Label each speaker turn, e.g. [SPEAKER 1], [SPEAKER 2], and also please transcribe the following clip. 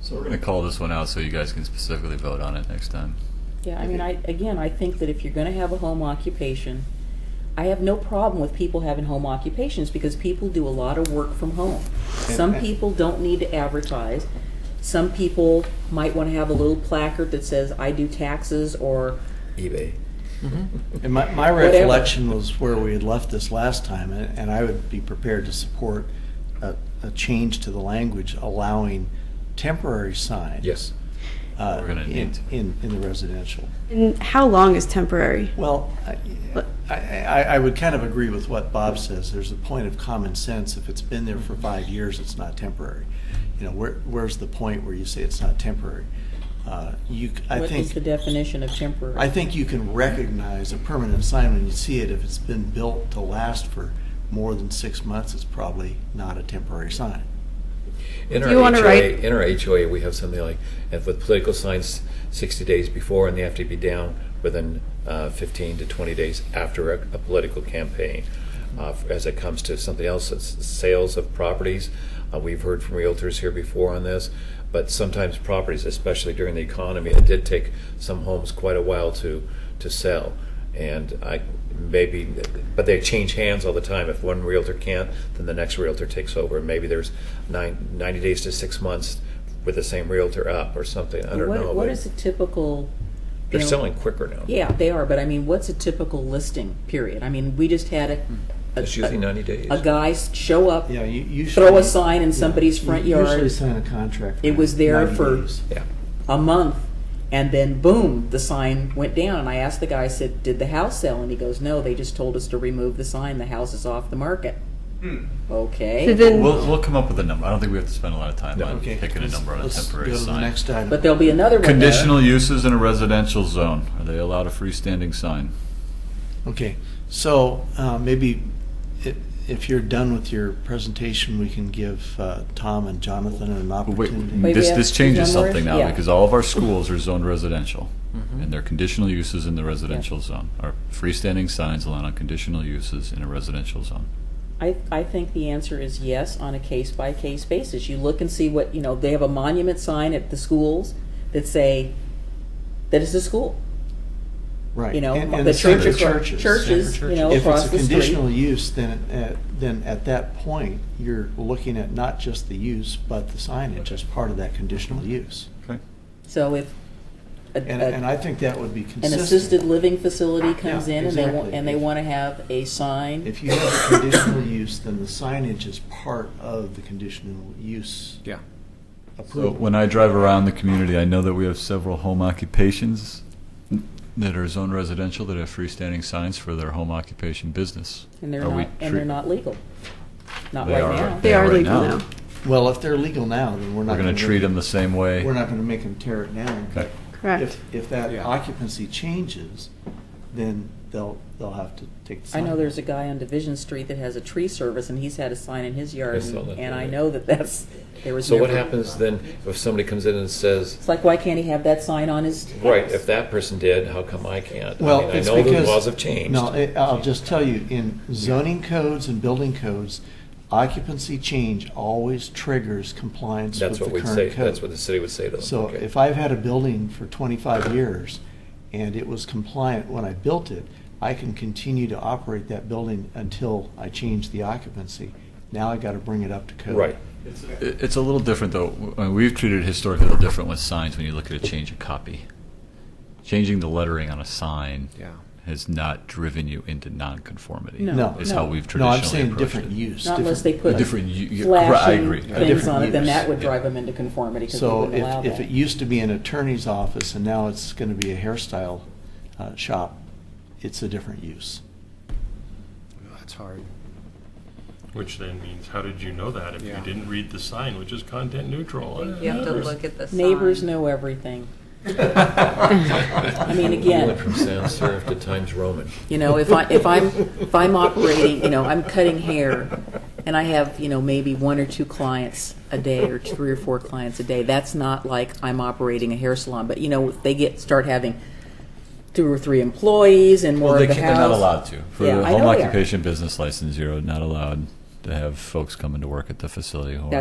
[SPEAKER 1] So we're going to call this one out so you guys can specifically vote on it next time.
[SPEAKER 2] Yeah, I mean, I, again, I think that if you're gonna have a home occupation, I have no problem with people having home occupations, because people do a lot of work from home. Some people don't need to advertise, some people might wanna have a little placard that says, I do taxes, or,
[SPEAKER 3] eBay.
[SPEAKER 4] And my, my
[SPEAKER 2] Whatever.
[SPEAKER 4] recollection was where we had left this last time, and and I would be prepared to support a, a change to the language allowing temporary signs.
[SPEAKER 3] Yes.
[SPEAKER 4] uh,
[SPEAKER 1] We're gonna
[SPEAKER 4] in-
[SPEAKER 1] need to.
[SPEAKER 4] In, in the residential.
[SPEAKER 5] And how long is temporary?
[SPEAKER 4] Well, I, I, I I would kind of agree with what Bob says. There's a point of common sense. If it's been there for five years, it's not temporary. You know, where, where's the point where you say it's not temporary? Uh, You, c- I
[SPEAKER 2] what
[SPEAKER 4] think.
[SPEAKER 2] is the definition of temporary?
[SPEAKER 4] I think you can recognize a permanent sign when you see it. If it's been built to last for more than six months, it's probably not a temporary sign.
[SPEAKER 3] In
[SPEAKER 5] Do
[SPEAKER 3] our
[SPEAKER 5] you wanna
[SPEAKER 3] HOA,
[SPEAKER 5] write-
[SPEAKER 3] in our HOA, we have something like, and with political signs, sixty days before, and they have to be down within uh, fifteen to twenty days after a, a political campaign. Uh, f- as it comes to something else, it's sales of properties. Uh, we've heard from realtors here before on this, but sometimes properties, especially during the economy, it did take some homes quite a while to to sell. And I maybe, but they change hands all the time. If one realtor can't, then the next realtor takes over. Maybe there's nine, 90 days to six months with the same realtor up or something. I don't
[SPEAKER 2] What-
[SPEAKER 3] know.
[SPEAKER 2] What
[SPEAKER 3] but
[SPEAKER 2] is a typical?
[SPEAKER 3] They're
[SPEAKER 2] you know,
[SPEAKER 3] selling quicker now.
[SPEAKER 2] Yeah, they are, but I mean, what's a typical listing period? I mean, we just had a. a-
[SPEAKER 3] It's Hmm. usually 90 days.
[SPEAKER 2] A guy s- show up,
[SPEAKER 4] Yeah, you usually.
[SPEAKER 2] throw a sign in somebody's front
[SPEAKER 4] You Usually
[SPEAKER 2] yard,
[SPEAKER 4] sign a contract.
[SPEAKER 2] It was there
[SPEAKER 4] 90
[SPEAKER 2] for-
[SPEAKER 4] days.
[SPEAKER 3] Yeah.
[SPEAKER 2] a month, and then boom, the sign went down. And I asked the guy, I said, did the house sell? And he goes, no, they just told us to remove the sign. The house is off the market.
[SPEAKER 4] Hmm.
[SPEAKER 5] So
[SPEAKER 2] Okay.
[SPEAKER 5] then,
[SPEAKER 1] We'll, we'll come up with a number. I don't think we have to spend a lot of time on
[SPEAKER 4] Okay.
[SPEAKER 1] picking a
[SPEAKER 4] let's-
[SPEAKER 1] number on a
[SPEAKER 4] let's
[SPEAKER 1] temporary
[SPEAKER 4] Go to the
[SPEAKER 1] sign.
[SPEAKER 4] next item.
[SPEAKER 2] But there'll be another one. there.
[SPEAKER 1] Conditional uses in a residential zone. Are they allowed a freestanding sign?
[SPEAKER 4] Okay, so uh, maybe i- if you're done with your presentation, we can give uh, Tom and Jonathan an
[SPEAKER 1] Well, Wait,
[SPEAKER 4] opportunity.
[SPEAKER 2] Wait, we
[SPEAKER 1] this,
[SPEAKER 2] have
[SPEAKER 1] this changes
[SPEAKER 2] zone where-
[SPEAKER 1] something now
[SPEAKER 2] yeah.
[SPEAKER 1] because all of our schools are zoned residential.
[SPEAKER 4] Mm-hmm.
[SPEAKER 1] And their conditional uses in the residential zone are freestanding signs allowed on conditional uses in a residential zone.
[SPEAKER 2] I, I think the answer is yes on a case by case basis. You look and see what, you know, they have a monument sign at the schools that say that it's a school.
[SPEAKER 4] Right.
[SPEAKER 2] You know,
[SPEAKER 4] and- and
[SPEAKER 2] the
[SPEAKER 4] same
[SPEAKER 2] church
[SPEAKER 4] for
[SPEAKER 2] across- churches,
[SPEAKER 4] Same for
[SPEAKER 2] you know,
[SPEAKER 4] churches.
[SPEAKER 2] across
[SPEAKER 4] If
[SPEAKER 2] the
[SPEAKER 4] it's a
[SPEAKER 2] street.
[SPEAKER 4] conditional use, then, at- then at that point, you're looking at not just the use, but the signage as part of that conditional use.
[SPEAKER 1] Okay.
[SPEAKER 2] So if a,
[SPEAKER 4] And,
[SPEAKER 2] a-
[SPEAKER 4] and I think that would be
[SPEAKER 2] an
[SPEAKER 4] consistent.
[SPEAKER 2] assisted living facility comes
[SPEAKER 4] Yeah,
[SPEAKER 2] in and they want
[SPEAKER 4] exactly.
[SPEAKER 2] and they want to have a sign.
[SPEAKER 4] If you have a conditional use, then the signage is part of the conditional use
[SPEAKER 6] Yeah.
[SPEAKER 1] So
[SPEAKER 4] approval.
[SPEAKER 1] when I drive around the community, I know that we have several home occupations that are zone residential that have freestanding signs for their home occupation business.
[SPEAKER 2] And they're
[SPEAKER 1] Are we
[SPEAKER 2] not, and they're
[SPEAKER 1] treat-
[SPEAKER 2] not legal. Not
[SPEAKER 1] They
[SPEAKER 2] right
[SPEAKER 1] are.
[SPEAKER 2] now.
[SPEAKER 5] they
[SPEAKER 1] Yeah,
[SPEAKER 5] are
[SPEAKER 1] right
[SPEAKER 5] legal
[SPEAKER 1] now.
[SPEAKER 5] now.
[SPEAKER 4] Well, if they're legal now, then we're
[SPEAKER 1] We're
[SPEAKER 4] not
[SPEAKER 1] going
[SPEAKER 4] going
[SPEAKER 1] to treat them the same way.
[SPEAKER 4] We're not going to make them tear it down.
[SPEAKER 1] Okay.
[SPEAKER 5] Correct.
[SPEAKER 4] If, if that
[SPEAKER 6] Yeah.
[SPEAKER 4] occupancy changes, then they'll, they'll have to take the
[SPEAKER 2] I
[SPEAKER 4] sign.
[SPEAKER 2] know there's a guy on Division Street that has a tree service and he's had a sign in his
[SPEAKER 3] I
[SPEAKER 2] yard
[SPEAKER 3] saw
[SPEAKER 2] and
[SPEAKER 3] that
[SPEAKER 2] and I
[SPEAKER 3] today.
[SPEAKER 2] know that that's, there was
[SPEAKER 3] So
[SPEAKER 2] never.
[SPEAKER 3] what happens then if somebody comes in and says,
[SPEAKER 2] It's like, why can't he have that sign on his house?
[SPEAKER 3] right, if that person did, how come I can't? I
[SPEAKER 4] Well,
[SPEAKER 3] mean, I
[SPEAKER 4] it's
[SPEAKER 3] know the
[SPEAKER 4] because-
[SPEAKER 3] laws have changed.
[SPEAKER 4] No, I- I'll just tell you, in zoning codes and building codes, occupancy change always triggers compliance with
[SPEAKER 3] That's
[SPEAKER 4] the
[SPEAKER 3] what
[SPEAKER 4] current
[SPEAKER 3] we'd
[SPEAKER 4] code.
[SPEAKER 3] say, that's what the city would say to them.
[SPEAKER 4] So
[SPEAKER 3] Okay.
[SPEAKER 4] if I've had a building for 25 years and it was compliant when I built it, I can continue to operate that building until I change the occupancy. Now I got to bring it up to code.
[SPEAKER 3] Right.
[SPEAKER 1] It- It's a little different, though. I mean, We've treated it historically a little different with signs when you look at a change of copy. Changing the lettering on a sign
[SPEAKER 6] Yeah.
[SPEAKER 1] has not driven you into nonconformity.
[SPEAKER 2] No.
[SPEAKER 4] No.
[SPEAKER 1] Is how we've
[SPEAKER 4] No,
[SPEAKER 1] traditionally
[SPEAKER 4] I'm
[SPEAKER 1] approached
[SPEAKER 4] saying different
[SPEAKER 1] it.
[SPEAKER 4] use.
[SPEAKER 2] Not unless they
[SPEAKER 4] different-
[SPEAKER 2] put
[SPEAKER 1] A different, you, you, I agree.
[SPEAKER 2] flashing things
[SPEAKER 4] different
[SPEAKER 2] on it, then
[SPEAKER 4] use.
[SPEAKER 2] that would drive him into conformity because we
[SPEAKER 4] So
[SPEAKER 2] wouldn't allow
[SPEAKER 4] if, if it
[SPEAKER 2] that.
[SPEAKER 4] used to be an attorney's office and now it's going to be a hairstyle uh, shop, it's a different use.
[SPEAKER 6] That's hard.
[SPEAKER 7] Which then means, how did you know that if
[SPEAKER 6] Yeah.
[SPEAKER 7] you didn't read the sign, which is content neutral?
[SPEAKER 8] You have to look at the sign.
[SPEAKER 2] Neighbors know everything. I mean, again.
[SPEAKER 3] Went from sans serif to Times Roman.
[SPEAKER 2] You know, if I if I'm if I'm operating, you know, I'm cutting hair, and I have you know maybe one or two clients a day or three or four clients a day. That's not like I'm operating a hair salon, but you know, if they get start having two or three employees and more
[SPEAKER 1] Well, they
[SPEAKER 2] of the
[SPEAKER 1] can't,
[SPEAKER 2] house.
[SPEAKER 1] they're not allowed to. For
[SPEAKER 2] Yeah,
[SPEAKER 1] the
[SPEAKER 2] I
[SPEAKER 1] home
[SPEAKER 2] know they are.
[SPEAKER 1] occupation business license, you're not allowed to have folks coming to work at the facility who are